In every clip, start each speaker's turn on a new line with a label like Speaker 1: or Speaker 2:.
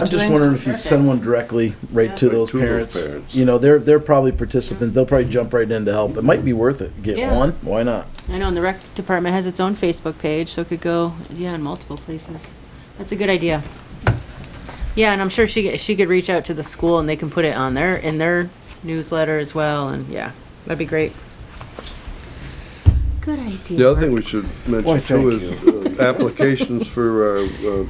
Speaker 1: I'm just wondering if you send one directly right to
Speaker 2: Right
Speaker 1: those
Speaker 2: to those
Speaker 1: parents.
Speaker 2: parents.
Speaker 1: You know, they're, they're probably participants, they'll probably jump right in to help. It might be worth it, get
Speaker 3: Yeah.
Speaker 1: one, why not?
Speaker 3: I know, and the rec department has its own Facebook page, so it could go, yeah, in multiple places. That's a good idea. Yeah, and I'm sure she, she could reach out to the school and they can put it on their, in their newsletter as well, and yeah, that'd be great. Good idea.
Speaker 2: The other thing we should
Speaker 1: Why,
Speaker 2: mention
Speaker 1: thank
Speaker 2: too is uh, applications for uh, uh,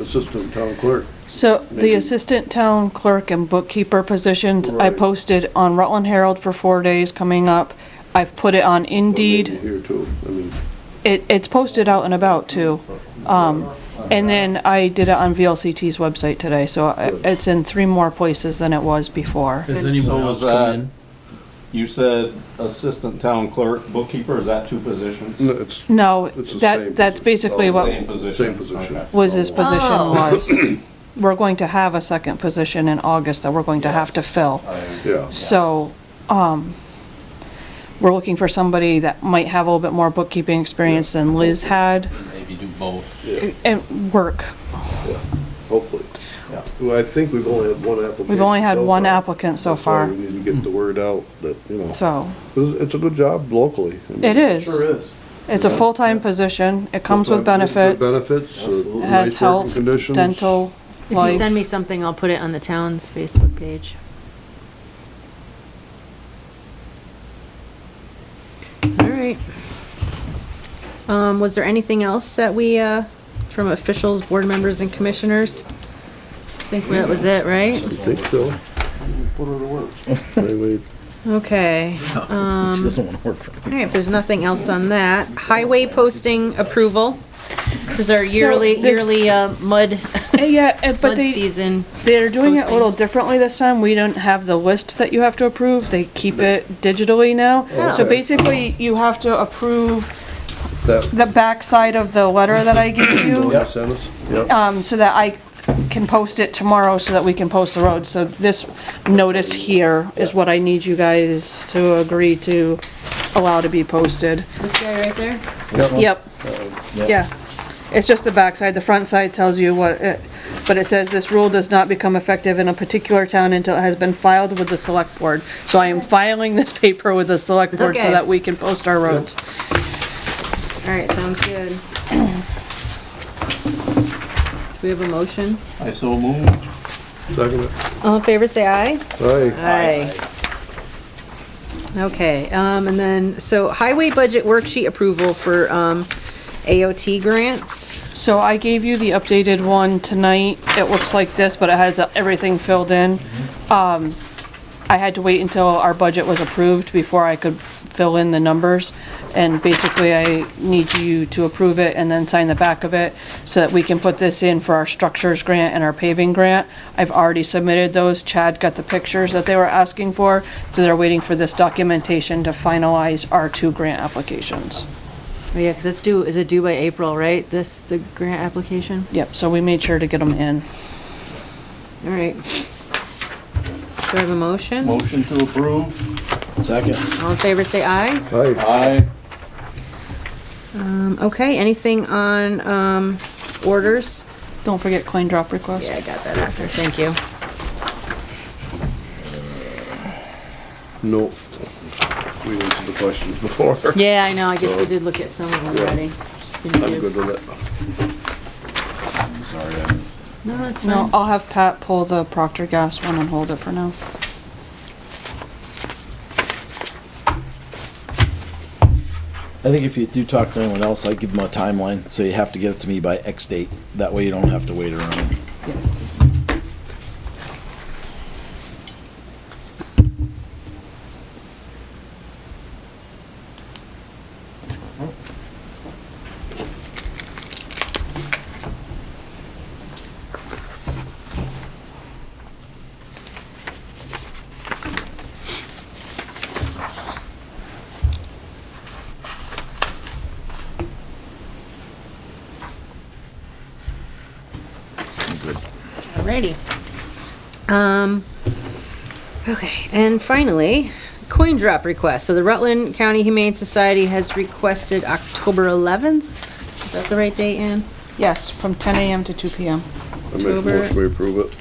Speaker 2: assistant town clerk.
Speaker 4: So the
Speaker 2: Maybe-
Speaker 4: assistant town clerk and bookkeeper positions, I
Speaker 2: Right.
Speaker 4: posted on Rutland Herald for four days coming up. I've put it on Indeed.
Speaker 2: Here too, I mean,
Speaker 4: It, it's posted out and about too. Um, and then I did it on VLCT's website today, so I- it's in three more places than it was before.
Speaker 5: Has anyone
Speaker 6: So
Speaker 5: else
Speaker 6: is
Speaker 5: come
Speaker 6: that-
Speaker 5: in?
Speaker 6: You said assistant town clerk, bookkeeper, is that two positions?
Speaker 2: no, it's
Speaker 4: No,
Speaker 2: It's the same
Speaker 4: that, that's
Speaker 2: position.
Speaker 4: basically
Speaker 6: It's the
Speaker 4: what
Speaker 6: Same position.
Speaker 2: same position.
Speaker 6: Okay.
Speaker 4: was his position
Speaker 3: Oh.
Speaker 4: was. We're going to have a second position in August that we're going to have to fill.
Speaker 2: Yeah,
Speaker 4: So, um, we're looking for somebody that might have a little bit more bookkeeping experience than Liz had
Speaker 7: Maybe do both.
Speaker 4: and work.
Speaker 2: hopefully.
Speaker 7: Yeah.
Speaker 2: Well, I think we've only had one application.
Speaker 4: We've only had
Speaker 2: so
Speaker 4: one
Speaker 2: far.
Speaker 4: applicant so
Speaker 2: That's why
Speaker 4: far,
Speaker 2: We need to get the word out that, you know,
Speaker 4: so
Speaker 2: it's it's a good job locally. I mean,
Speaker 4: it is.
Speaker 1: is.
Speaker 4: It's a full-time position. It comes with
Speaker 2: full-time, good
Speaker 4: benefits.
Speaker 2: Benefits, uh,
Speaker 4: It
Speaker 2: nice
Speaker 4: has
Speaker 2: working
Speaker 4: health,
Speaker 2: conditions.
Speaker 4: dental,
Speaker 3: If you send
Speaker 4: life.
Speaker 3: me something, I'll put it on the town's Facebook page. All right. Um, was there anything else that we, uh, from officials, board members and commissioners? I think that was it, right?
Speaker 2: I think so. Put her to work. Anyway,
Speaker 3: Okay.
Speaker 1: She doesn't want to work for
Speaker 3: All right, if there's nothing else on that, highway posting approval. This is our yearly,
Speaker 4: there's-
Speaker 3: yearly, uh, mud,
Speaker 4: Eh, Yeah, eh, but
Speaker 3: mud
Speaker 4: they,
Speaker 3: season.
Speaker 4: they're doing it a little
Speaker 3: postings.
Speaker 4: differently this time. We don't have the list that you have to approve. They keep it digitally now. So
Speaker 2: Oh, okay.
Speaker 4: basically, you have to approve
Speaker 2: That,
Speaker 4: the backside of the letter that I gave you.
Speaker 2: that sentence, yeah.
Speaker 4: um, so that I can post it tomorrow so that we can post the road. So this notice here is what I need you guys to agree to allow to be posted.
Speaker 3: This guy right there?
Speaker 4: Yep.
Speaker 1: Yep.
Speaker 4: Yeah. It's just the backside. The front side tells you what it, but it says this rule does not become effective in a particular town until it has been filed with the select board. So I am filing this paper with the select board so
Speaker 3: Okay.
Speaker 4: that we can post our roads.
Speaker 3: All right, sounds good. Do we have a motion?
Speaker 6: I so moved.
Speaker 2: Second it.
Speaker 3: All in favor, say aye.
Speaker 2: Aye.
Speaker 3: Aye. Okay, um, and then, so highway budget worksheet approval for, um, AOT grants.
Speaker 4: So I gave you the updated one tonight. It looks like this, but it has everything filled in. Um, I had to wait until our budget was approved before I could fill in the numbers. And basically, I need you to approve it and then sign the back of it so that we can put this in for our structures grant and our paving grant. I've already submitted those. Chad got the pictures that they were asking for. So they're waiting for this documentation to finalize our two grant applications.
Speaker 3: Oh, yeah, because it's due, is it due by April, right? This, the grant application?
Speaker 4: Yep, so we made sure to get them in.
Speaker 3: All right. Do I have a motion?
Speaker 6: Motion to approve.
Speaker 1: it. Second.
Speaker 3: All in favor, say aye.
Speaker 2: Aye.
Speaker 6: Aye.
Speaker 3: Um, okay, anything on, um, orders?
Speaker 4: Don't forget coin drop request.
Speaker 3: Yeah, I got that after, thank you.
Speaker 2: No. We answered the questions before.
Speaker 3: Yeah, I know, I guess we did look at some of them
Speaker 2: Yeah.
Speaker 3: already.
Speaker 2: I'm good with it.
Speaker 1: Sorry, I missed
Speaker 3: No, that's
Speaker 4: No,
Speaker 3: fine.
Speaker 4: I'll have Pat pull the Procter Gas one and hold it for now.
Speaker 1: I think if you do talk to anyone else, I give them a timeline, so you have to get it to me by X date. That way you don't have to wait around.
Speaker 3: Alrighty. Um, okay, and finally, coin drop request. So the Rutland County Humane Society has requested October eleventh. Is that the right date, Ann?
Speaker 4: Yes, from ten AM to two PM.
Speaker 2: I make a
Speaker 3: October-
Speaker 2: motion we approve it.